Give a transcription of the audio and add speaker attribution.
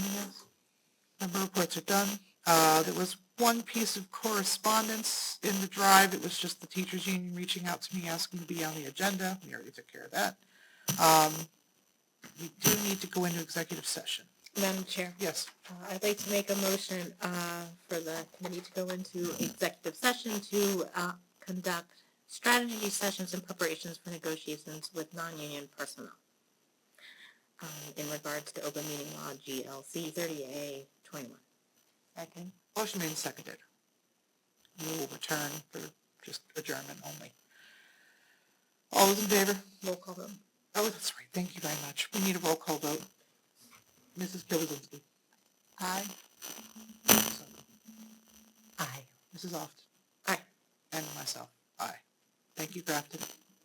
Speaker 1: Member reports are done. Uh, there was one piece of correspondence in the drive. It was just the teachers union reaching out to me, asking to be on the agenda. We already took care of that. Um, we do need to go into executive session.
Speaker 2: Madam Chair,
Speaker 1: Yes.
Speaker 2: uh, I'd like to make a motion uh, for the committee to go into executive session to uh, conduct strategy sessions and preparations for negotiations with non-union personnel um, in regards to open meeting law GLC 30A 21. Second.
Speaker 1: Motion made and seconded. We will return for just adjournment only. All those in favor?
Speaker 2: Roll call vote.
Speaker 1: Oh, that's right. Thank you very much. We need a roll call vote. Mrs. Gilligan. Aye.
Speaker 2: Aye.
Speaker 1: Mrs. Oft.
Speaker 2: Aye.
Speaker 1: And myself. Aye. Thank you, Grafton.